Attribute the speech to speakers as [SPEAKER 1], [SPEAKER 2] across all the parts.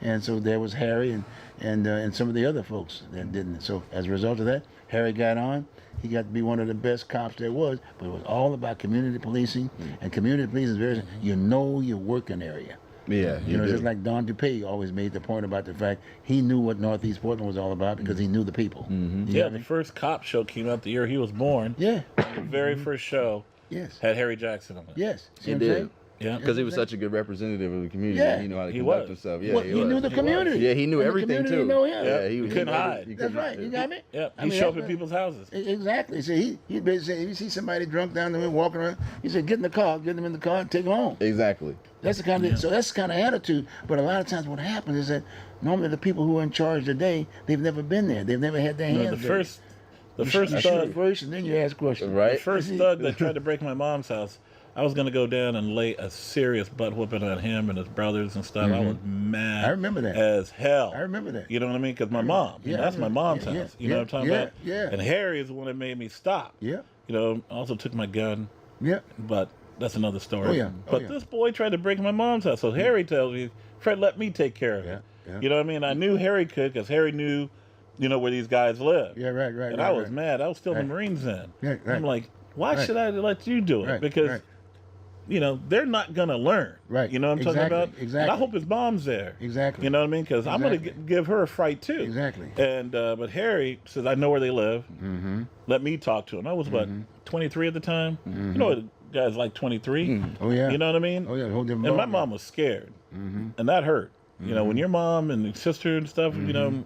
[SPEAKER 1] and so there was Harry and and uh, and some of the other folks that didn't. So as a result of that, Harry got on. He got to be one of the best cops there was, but it was all about community policing, and community policing is very you know your working area.
[SPEAKER 2] Yeah,
[SPEAKER 1] You, know, just like Don DuPay always made the point about the fact he knew what Northeast Portland was all about because he knew the people. Mm-hmm.
[SPEAKER 3] Yeah, the first cop show came out the year he was born.
[SPEAKER 1] Yeah.
[SPEAKER 3] The very first show
[SPEAKER 1] Yes.
[SPEAKER 3] had Harry Jackson on it.
[SPEAKER 1] Yes. See
[SPEAKER 2] He
[SPEAKER 1] what I'm
[SPEAKER 2] did.
[SPEAKER 1] saying?
[SPEAKER 3] Yeah.
[SPEAKER 2] because he was such a good representative of the community.
[SPEAKER 1] Yeah,
[SPEAKER 2] he knew how to
[SPEAKER 3] he
[SPEAKER 2] conduct
[SPEAKER 3] was.
[SPEAKER 2] himself. Yeah,
[SPEAKER 1] well,
[SPEAKER 2] he,
[SPEAKER 1] he, knew
[SPEAKER 2] was.
[SPEAKER 1] the community.
[SPEAKER 2] Yeah, he
[SPEAKER 1] And
[SPEAKER 2] knew
[SPEAKER 1] the
[SPEAKER 2] everything
[SPEAKER 1] community
[SPEAKER 2] too.
[SPEAKER 1] Know him.
[SPEAKER 2] Yeah, he,
[SPEAKER 3] You
[SPEAKER 2] he
[SPEAKER 3] couldn't
[SPEAKER 2] knew-
[SPEAKER 3] hide.
[SPEAKER 2] he
[SPEAKER 1] That's
[SPEAKER 2] couldn't-
[SPEAKER 1] right. You got me.
[SPEAKER 3] Yep.
[SPEAKER 1] I
[SPEAKER 3] He
[SPEAKER 1] mean,
[SPEAKER 3] showed up
[SPEAKER 1] that's
[SPEAKER 3] at
[SPEAKER 1] right.
[SPEAKER 3] people's houses.
[SPEAKER 1] E- Exactly. See, he he been saying, you see somebody drunk down the way walking around, he said, get in the car, get them in the car, and take them home.
[SPEAKER 2] Exactly.
[SPEAKER 1] That's the kind of so that's the kind of attitude. But a lot of times, what happens is that normally the people who are in charge today, they've never been there. They've never had their
[SPEAKER 3] You know,
[SPEAKER 1] hands. dirty.
[SPEAKER 3] the first, the
[SPEAKER 1] You
[SPEAKER 3] first
[SPEAKER 1] shoot
[SPEAKER 3] thug,
[SPEAKER 1] first, and then you ask questions.
[SPEAKER 3] the
[SPEAKER 2] Right.
[SPEAKER 3] first thug that tried to break my mom's house. I was gonna go down and lay a serious butt whooping on him and his brothers and stuff. I was mad.
[SPEAKER 1] Mm-hmm. I remember that.
[SPEAKER 3] as hell.
[SPEAKER 1] I remember that.
[SPEAKER 3] You know what I mean? Because my mom. you
[SPEAKER 1] Yeah,
[SPEAKER 3] know, that's
[SPEAKER 1] I
[SPEAKER 3] my
[SPEAKER 1] remember-
[SPEAKER 3] mom's
[SPEAKER 1] yeah, yeah,
[SPEAKER 3] house. you know
[SPEAKER 1] yeah,
[SPEAKER 3] what I'm talking
[SPEAKER 1] yeah,
[SPEAKER 3] about?
[SPEAKER 1] yeah.
[SPEAKER 3] And Harry is the one that made me stop.
[SPEAKER 1] Yeah.
[SPEAKER 3] You know, also took my gun.
[SPEAKER 1] Yeah.
[SPEAKER 3] But that's another story.
[SPEAKER 1] Oh, yeah. Oh,
[SPEAKER 3] but
[SPEAKER 1] yeah. Hmm.
[SPEAKER 3] this boy tried to break my mom's house. So Harry tells me, Fred, let me take care of it.
[SPEAKER 1] Yeah, yeah.
[SPEAKER 3] You know what I mean? I knew Harry could because Harry knew, you know, where these guys live.
[SPEAKER 1] Yeah, right, right,
[SPEAKER 3] And
[SPEAKER 1] right,
[SPEAKER 3] I was
[SPEAKER 1] right.
[SPEAKER 3] mad. I was still
[SPEAKER 1] Right.
[SPEAKER 3] the Marines then.
[SPEAKER 1] Yeah, right.
[SPEAKER 3] I'm like, why
[SPEAKER 1] Right.
[SPEAKER 3] should I let you do it?
[SPEAKER 1] Right,
[SPEAKER 3] Because,
[SPEAKER 1] right.
[SPEAKER 3] you know, they're not going to learn.
[SPEAKER 1] Right.
[SPEAKER 3] You know what I'm
[SPEAKER 1] Exactly,
[SPEAKER 3] talking about? And I
[SPEAKER 1] exactly.
[SPEAKER 3] hope his mom's there.
[SPEAKER 1] Exactly.
[SPEAKER 3] You know what I mean? Because I'm going
[SPEAKER 1] Exactly.
[SPEAKER 3] to give her a fright too.
[SPEAKER 1] Exactly.
[SPEAKER 3] And, uh, but Harry says, I know where they live
[SPEAKER 1] Mm-hmm.
[SPEAKER 3] let me talk to him. I was what 23 at the time. You know, what guys like 23.
[SPEAKER 1] Oh, yeah.
[SPEAKER 3] You know what I mean?
[SPEAKER 1] Mm-hmm. Oh, yeah, Mm-hmm. a whole different
[SPEAKER 3] And my
[SPEAKER 1] ballgame.
[SPEAKER 3] mom was scared, and that hurt. You know, when your mom and your sister and stuff, you know,
[SPEAKER 1] Mm-hmm.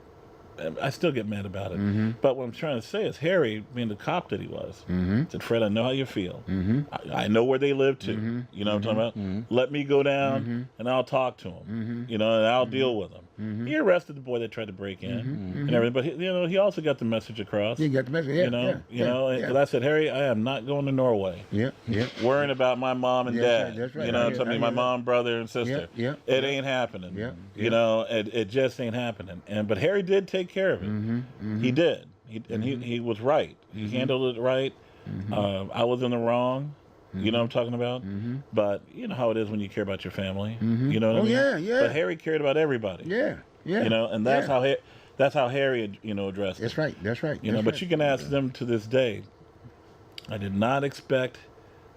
[SPEAKER 3] um, I still get mad about it. But what I'm trying to say is Harry, being the cop that he was,
[SPEAKER 1] Mm-hmm,
[SPEAKER 3] said, "Fred, I know how you feel. I, I know where they live too.
[SPEAKER 1] Mm-hmm.
[SPEAKER 3] You know what I'm talking about? Let me go down and I'll talk to him.
[SPEAKER 1] mm-hmm.
[SPEAKER 3] You know, and I'll deal with him." He arrested the boy that tried to break in and everything, but he, you know he also got the message across
[SPEAKER 1] You got the message. Mm-hmm. Yeah,
[SPEAKER 3] you know,
[SPEAKER 1] yeah,
[SPEAKER 3] you
[SPEAKER 1] yeah,
[SPEAKER 3] know. and-
[SPEAKER 1] yeah.
[SPEAKER 3] 'cause I said, Harry, I am not going to Norway.
[SPEAKER 1] Yeah, yeah.
[SPEAKER 3] Worrying about my mom and
[SPEAKER 1] Yeah,
[SPEAKER 3] dad.
[SPEAKER 1] that's right, that's right.
[SPEAKER 3] You know,
[SPEAKER 1] I
[SPEAKER 3] what I'm
[SPEAKER 1] hear-
[SPEAKER 3] talking
[SPEAKER 1] I
[SPEAKER 3] my
[SPEAKER 1] hear that.
[SPEAKER 3] mom, brother, and sister.
[SPEAKER 1] Yeah, yeah,
[SPEAKER 3] It ain't happening.
[SPEAKER 1] Yeah,
[SPEAKER 3] You know, it, it just ain't happening. And but Harry did take care of it.
[SPEAKER 1] Mm-hmm,
[SPEAKER 3] He did. He, and he, he was right. He handled it right.
[SPEAKER 1] Mm-hmm.
[SPEAKER 3] Um, I was in the wrong. You know what I'm talking about? But you know how it is when you care about your family. You know what
[SPEAKER 1] Mm-hmm. Oh,
[SPEAKER 3] I mean?
[SPEAKER 1] yeah, yeah.
[SPEAKER 3] But Harry cared about everybody.
[SPEAKER 1] Yeah, yeah.
[SPEAKER 3] You know, and that's
[SPEAKER 1] yeah.
[SPEAKER 3] how he, that's how Harry you know addressed it.
[SPEAKER 1] That's right. That's right.
[SPEAKER 3] You know,
[SPEAKER 1] that's
[SPEAKER 3] but
[SPEAKER 1] right.
[SPEAKER 3] you can ask them to this day. I did not expect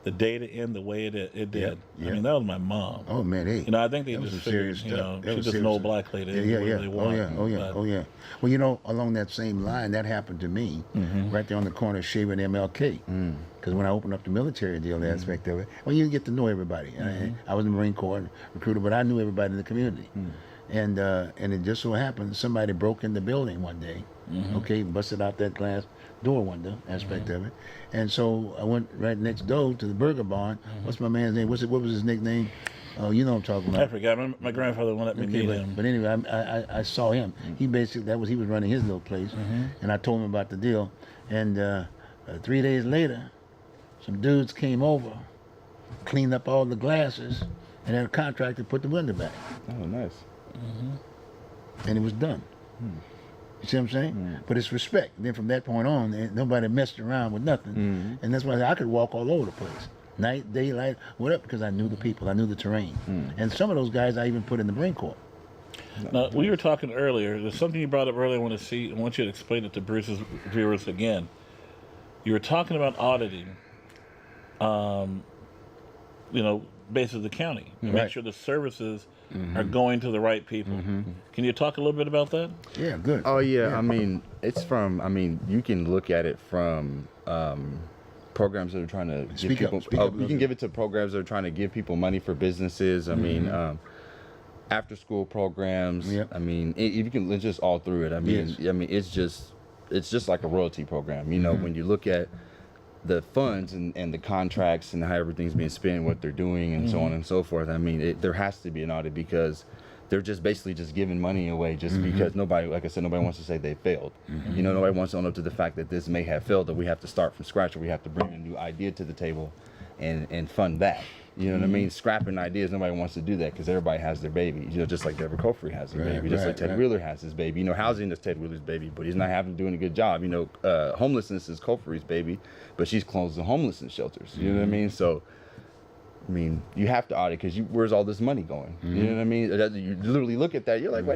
[SPEAKER 3] the day to end the way it it did.
[SPEAKER 1] yeah.
[SPEAKER 3] I mean, that was my mom.
[SPEAKER 1] Oh man, hey.
[SPEAKER 3] You know, I think they
[SPEAKER 1] that was
[SPEAKER 3] just
[SPEAKER 1] some serious
[SPEAKER 3] figured, you
[SPEAKER 1] stuff.
[SPEAKER 3] know,
[SPEAKER 1] That
[SPEAKER 3] she's
[SPEAKER 1] was
[SPEAKER 3] just an
[SPEAKER 1] serious
[SPEAKER 3] old
[SPEAKER 1] stuff.
[SPEAKER 3] black lady.
[SPEAKER 1] Yeah,
[SPEAKER 3] They
[SPEAKER 1] yeah,
[SPEAKER 3] do
[SPEAKER 1] yeah.
[SPEAKER 3] what they
[SPEAKER 1] Oh
[SPEAKER 3] want,
[SPEAKER 1] yeah, oh yeah,
[SPEAKER 3] but-
[SPEAKER 1] oh yeah. Well, you know, along that same line, that happened to me,
[SPEAKER 3] Mm-hmm.
[SPEAKER 1] right there on the corner of Shaver and MLK.
[SPEAKER 3] Mm.
[SPEAKER 1] Because when I opened up the military deal aspect of it, well, you get to know everybody.
[SPEAKER 3] Mm-hmm.
[SPEAKER 1] I, I was in the Marine Corps and recruiter, but I knew everybody in the community.
[SPEAKER 3] Mm.
[SPEAKER 1] And uh, and it just so happened somebody broke in the building one day.
[SPEAKER 3] Mm-hmm.
[SPEAKER 1] Okay, busted out that glass door window aspect of it, and so I went right next door to the Burger Barn.
[SPEAKER 3] Mm-hmm.
[SPEAKER 1] What's my man's name? What's it? What was his nickname? Oh, you know what I'm talking about.
[SPEAKER 3] I forgot. My, my grandfather won't let me
[SPEAKER 1] Okay,
[SPEAKER 3] meet
[SPEAKER 1] but,
[SPEAKER 3] him.
[SPEAKER 1] but anyway, I, I, I- I saw him. He basically that was he was running his little place, and I told him about the deal. And uh, uh, three days later, some dudes came over, cleaned up all the glasses, and had a contractor put the window back,
[SPEAKER 2] Oh, nice.
[SPEAKER 1] and it was done. You see what I'm saying? But it's respect. Then from that point on, eh, nobody messed around with nothing, and that's why I could walk all over the place. Night, daylight, whatever, because I knew the people, I knew the terrain, and some of those guys I even put in the Marine Corps.
[SPEAKER 3] Now, we were talking earlier. There's something you brought up earlier. I want to see. I want you to explain it to Bruce's viewers again. You were talking about auditing. Um, you know, basis of the county. to Make
[SPEAKER 1] Right.
[SPEAKER 3] sure the services are going to the right people. Can you talk a little bit about that?
[SPEAKER 1] Yeah, good.
[SPEAKER 2] Oh yeah, I mean, it's from. I mean, you can look at it from um, programs that are trying to give
[SPEAKER 1] Speak up,
[SPEAKER 2] people.
[SPEAKER 1] speak
[SPEAKER 2] oh,
[SPEAKER 1] up a
[SPEAKER 2] you
[SPEAKER 1] little
[SPEAKER 2] can
[SPEAKER 1] bit.
[SPEAKER 2] give it to programs that are trying to give people money for businesses. I mean, um, after school programs.
[SPEAKER 1] Yep.
[SPEAKER 2] I mean, i if you can it's just all through it. I mean, I mean, it's just it's just like a royalty program. You know, when you look at the funds and, and the contracts and how everything's being spent, what they're doing, and so
[SPEAKER 1] Mm-hmm.
[SPEAKER 2] on and so forth. I mean, it, there has to be an audit because they're just basically just giving money away just
[SPEAKER 1] Mm-hmm.
[SPEAKER 2] because nobody, like I said, nobody wants to say they failed. You know, nobody wants to own up to the fact that this may have failed, that we have to start from scratch, or we have to bring a new idea to the table and, and fund that. You know what I
[SPEAKER 1] Mm-hmm.
[SPEAKER 2] mean? Scrapping ideas, nobody wants to do that because everybody has their baby. You know, just like Deborah Cofrey has his
[SPEAKER 1] Right,
[SPEAKER 2] baby, just like
[SPEAKER 1] right,
[SPEAKER 2] Ted
[SPEAKER 1] right.
[SPEAKER 2] Wheeler has his baby. You know, housing is Ted Wheeler's baby, but he's not having doing a good job. You know, uh, homelessness is Cofrey's baby, but she's closed the homelessness shelters. You know what I mean? So, I mean, you have to audit because where's all this money going? You know what I mean? That- You literally look at that, you're like, wait.